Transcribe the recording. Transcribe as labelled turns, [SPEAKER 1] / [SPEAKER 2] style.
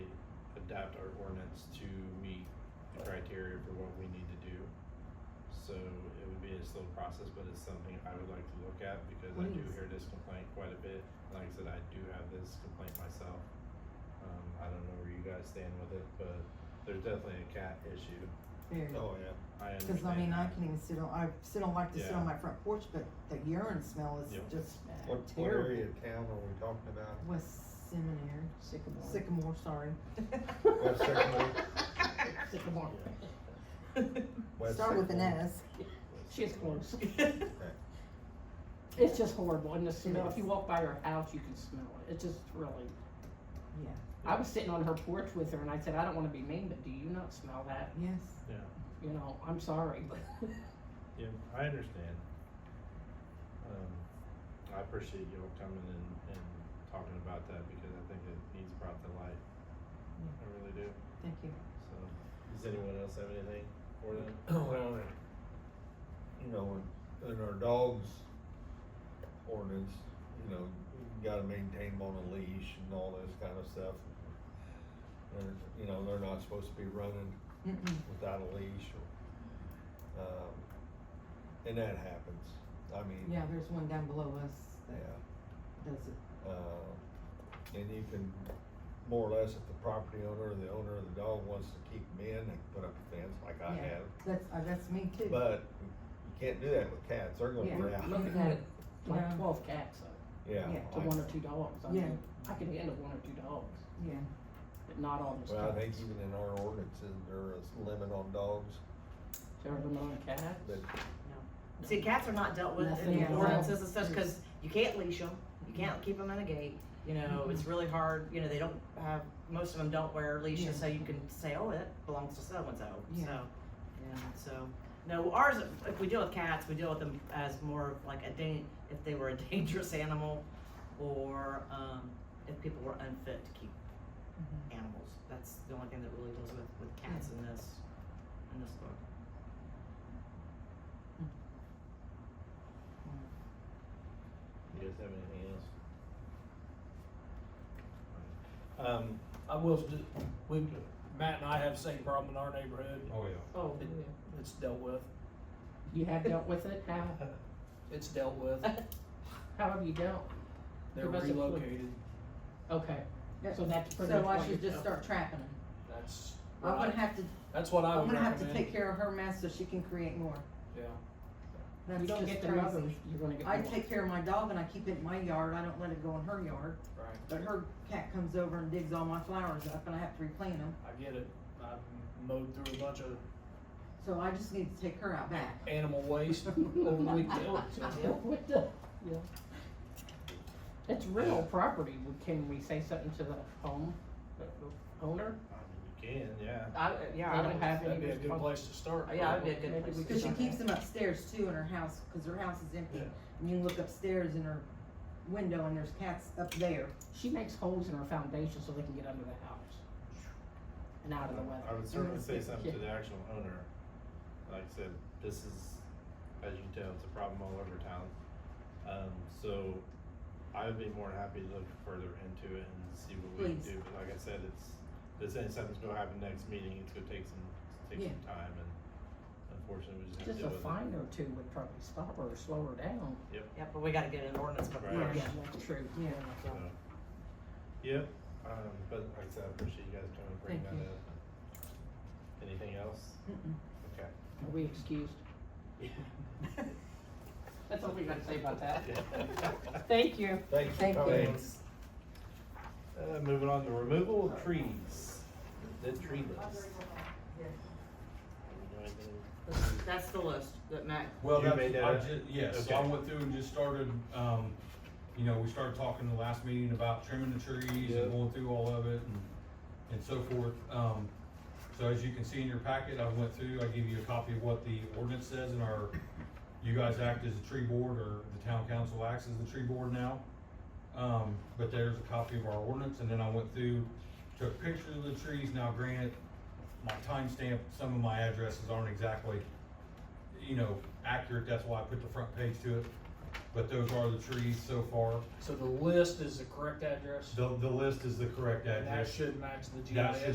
[SPEAKER 1] adapt our ordinance to meet the criteria for what we need to do. So it would be a slow process, but it's something I would like to look at because I do
[SPEAKER 2] Please.
[SPEAKER 1] hear this complaint quite a bit. Like I said, I do have this complaint myself. Um, I don't know where you guys stand with it, but there's definitely a cat issue.
[SPEAKER 2] Very.
[SPEAKER 3] Oh, yeah.
[SPEAKER 1] I understand.
[SPEAKER 2] Cause I mean, I
[SPEAKER 1] that.
[SPEAKER 2] can even sit on, I still don't like to sit
[SPEAKER 1] Yeah.
[SPEAKER 2] on my front porch, but the urine smell is
[SPEAKER 1] Yep.
[SPEAKER 2] just
[SPEAKER 3] What, what area
[SPEAKER 2] terrible.
[SPEAKER 3] of town are we talking about?
[SPEAKER 2] West Seminary,
[SPEAKER 4] Sycamore.
[SPEAKER 2] Sycamore, sorry.
[SPEAKER 3] West Sycamore?
[SPEAKER 4] Sycamore.
[SPEAKER 3] West
[SPEAKER 2] Start with an
[SPEAKER 3] Sycamore?
[SPEAKER 2] S.
[SPEAKER 4] She's close. It's just horrible, and the smell, if you walk by her house, you can smell it, it's just really.
[SPEAKER 2] Yeah.
[SPEAKER 4] I was sitting on her porch with her, and I said, I don't wanna be mean, but do you not smell that?
[SPEAKER 2] Yes.
[SPEAKER 1] Yeah.
[SPEAKER 4] You know, I'm sorry, but.
[SPEAKER 1] Yeah, I understand. Um, I appreciate y'all coming and, and talking about that because I think it needs brought to light. I really do,
[SPEAKER 2] Thank you.
[SPEAKER 1] so, does anyone else have anything for them?
[SPEAKER 3] Well, you know, in, in our dogs ordinance, you know, you gotta maintain them on a leash and all this kind of stuff. And, you know, they're not supposed to be running
[SPEAKER 2] Mm-mm.
[SPEAKER 3] without a leash or, um, and that happens. I mean.
[SPEAKER 2] Yeah, there's one down below us that
[SPEAKER 3] Yeah,
[SPEAKER 2] does it.
[SPEAKER 3] uh, and you can, more or less, if the property owner or the owner of the dog wants to keep them in, they can put up a fence like I
[SPEAKER 2] Yeah.
[SPEAKER 3] have.
[SPEAKER 2] That's, uh, that's me too.
[SPEAKER 3] But you can't do that with cats, they're gonna
[SPEAKER 2] Yeah.
[SPEAKER 3] get out.
[SPEAKER 4] Look at
[SPEAKER 2] Yeah.
[SPEAKER 4] that, like
[SPEAKER 2] Yeah.
[SPEAKER 4] twelve cats, uh,
[SPEAKER 3] Yeah.
[SPEAKER 2] Yeah.
[SPEAKER 4] to
[SPEAKER 3] like-
[SPEAKER 4] one or two dogs, I
[SPEAKER 2] Yeah.
[SPEAKER 4] mean, I can handle one or two dogs,
[SPEAKER 2] Yeah.
[SPEAKER 4] but not all the
[SPEAKER 3] Well, I think
[SPEAKER 4] cats.
[SPEAKER 3] even in our ordinances, there is limit on dogs,
[SPEAKER 4] There are no cats.
[SPEAKER 3] but
[SPEAKER 5] See, cats are not dealt with in
[SPEAKER 4] Nothing
[SPEAKER 2] at
[SPEAKER 5] the
[SPEAKER 2] all. Mm-hmm.
[SPEAKER 5] ordinances and such, cause you can't leash them, you can't keep them in a gate, you know, it's really hard, you know, they don't have, most of them don't wear
[SPEAKER 2] Yeah.
[SPEAKER 5] leashes, so you can say, oh, it belongs to so-and-so,
[SPEAKER 2] Yeah.
[SPEAKER 5] so. Yeah, so, no, ours, if we deal with cats, we deal with them as more of like a dan- if they were a dangerous animal, or, um, if people were unfit to keep
[SPEAKER 2] Mm-hmm.
[SPEAKER 5] animals, that's the only thing that really deals with, with cats
[SPEAKER 2] Mm.
[SPEAKER 5] in this, in this book.
[SPEAKER 1] You guys have anything else?
[SPEAKER 6] Um, I will, do- we, Matt and I have the same problem in our neighborhood.
[SPEAKER 1] Oh, yeah.
[SPEAKER 4] Oh,
[SPEAKER 6] It- It's dealt with.
[SPEAKER 4] you have dealt with it, how,
[SPEAKER 6] It's dealt with.
[SPEAKER 4] how have you dealt?
[SPEAKER 6] They're
[SPEAKER 4] must have flipped.
[SPEAKER 6] relocated.
[SPEAKER 4] Okay, so that's pretty much
[SPEAKER 2] So I
[SPEAKER 4] what
[SPEAKER 2] should
[SPEAKER 4] you're
[SPEAKER 2] just
[SPEAKER 4] doing.
[SPEAKER 2] start trapping them.
[SPEAKER 6] That's,
[SPEAKER 2] I'm
[SPEAKER 6] what
[SPEAKER 2] gonna
[SPEAKER 6] I-
[SPEAKER 2] have to,
[SPEAKER 6] that's what I
[SPEAKER 2] I'm
[SPEAKER 6] would
[SPEAKER 2] gonna have to
[SPEAKER 6] recommend.
[SPEAKER 2] take care of her mess so she can create more.
[SPEAKER 6] Yeah.
[SPEAKER 2] That's
[SPEAKER 4] You don't
[SPEAKER 2] just
[SPEAKER 4] get the
[SPEAKER 2] crazy.
[SPEAKER 4] mothers, you're gonna get
[SPEAKER 2] I
[SPEAKER 4] the ones.
[SPEAKER 2] take care of my dog and I keep it in my yard, I don't let it go in her yard,
[SPEAKER 6] Right.
[SPEAKER 2] but her cat comes over and digs all my flowers up and I have to replant them.
[SPEAKER 6] I get it. I've mowed through a bunch of
[SPEAKER 2] So I just need to take her out back.
[SPEAKER 6] animal waste over the weekend. so-
[SPEAKER 4] What the- yeah. It's real property, We- can we say something to the home the owner?
[SPEAKER 1] I mean, you can, yeah.
[SPEAKER 5] I, yeah,
[SPEAKER 4] They don't have
[SPEAKER 6] That'd
[SPEAKER 4] any
[SPEAKER 6] be a good
[SPEAKER 4] responsibility.
[SPEAKER 6] place to start.
[SPEAKER 5] Yeah, that'd be a good
[SPEAKER 4] Maybe
[SPEAKER 5] place
[SPEAKER 4] we
[SPEAKER 5] to
[SPEAKER 2] Cause she
[SPEAKER 4] could-
[SPEAKER 2] keeps them upstairs too in her house, cause her house is empty.
[SPEAKER 1] Yeah.
[SPEAKER 2] And you look upstairs in her window and there's cats up there.
[SPEAKER 4] She makes holes in her foundation so they can get under the house and out of the
[SPEAKER 1] I
[SPEAKER 4] weather.
[SPEAKER 1] would certainly say something to the actual owner. Like I said, this is, as you can tell, it's a problem all over town. Um, so I would be more than happy to look further into it and see what we can do.
[SPEAKER 2] Please.
[SPEAKER 1] But like I said, it's, this ain't something's gonna happen next meeting. It's gonna take some, take some time and unfortunately, we just have to
[SPEAKER 4] Just
[SPEAKER 1] deal
[SPEAKER 4] a
[SPEAKER 1] with it.
[SPEAKER 4] fine or two would probably stop her or slow her down.
[SPEAKER 5] Yeah, but we gotta get an ordinance book
[SPEAKER 1] Right.
[SPEAKER 5] first.
[SPEAKER 4] Yeah, that's true.
[SPEAKER 2] Yeah.
[SPEAKER 1] So, Yep, um, but like I said, I appreciate you guys coming and bringing that
[SPEAKER 2] Thank
[SPEAKER 1] up. Anything else?
[SPEAKER 2] Mm-mm.
[SPEAKER 1] Okay.
[SPEAKER 4] Are we excused? That's all we gotta say about that. Thank you.
[SPEAKER 3] Thanks for
[SPEAKER 2] Thank you.
[SPEAKER 3] coming.
[SPEAKER 1] Uh, moving on to removal of trees, the tree list.
[SPEAKER 5] That's the list that Matt,
[SPEAKER 7] Well,
[SPEAKER 1] You
[SPEAKER 7] that's,
[SPEAKER 1] made that
[SPEAKER 7] I
[SPEAKER 1] up?
[SPEAKER 7] ju- yeah, so I
[SPEAKER 1] Okay.
[SPEAKER 7] went through and just started, um, you know, we started talking the last meeting about trimming the trees
[SPEAKER 1] Yeah.
[SPEAKER 7] and going through all of it and, and so forth. Um, so as you can see in your packet, I went through, I gave you a copy of what the ordinance says and our, you guys act as the tree board or the town council acts as the tree board now. Um, but there's a copy of our ordinance and then I went through, took pictures of the trees. Now granted, my timestamp, some of my addresses aren't exactly you know, accurate, that's why I put the front page to it. But those are the trees so far.
[SPEAKER 6] So the list is the correct address?
[SPEAKER 7] The, the list is the correct
[SPEAKER 6] And that
[SPEAKER 7] address.
[SPEAKER 6] should match the GIS.
[SPEAKER 7] That should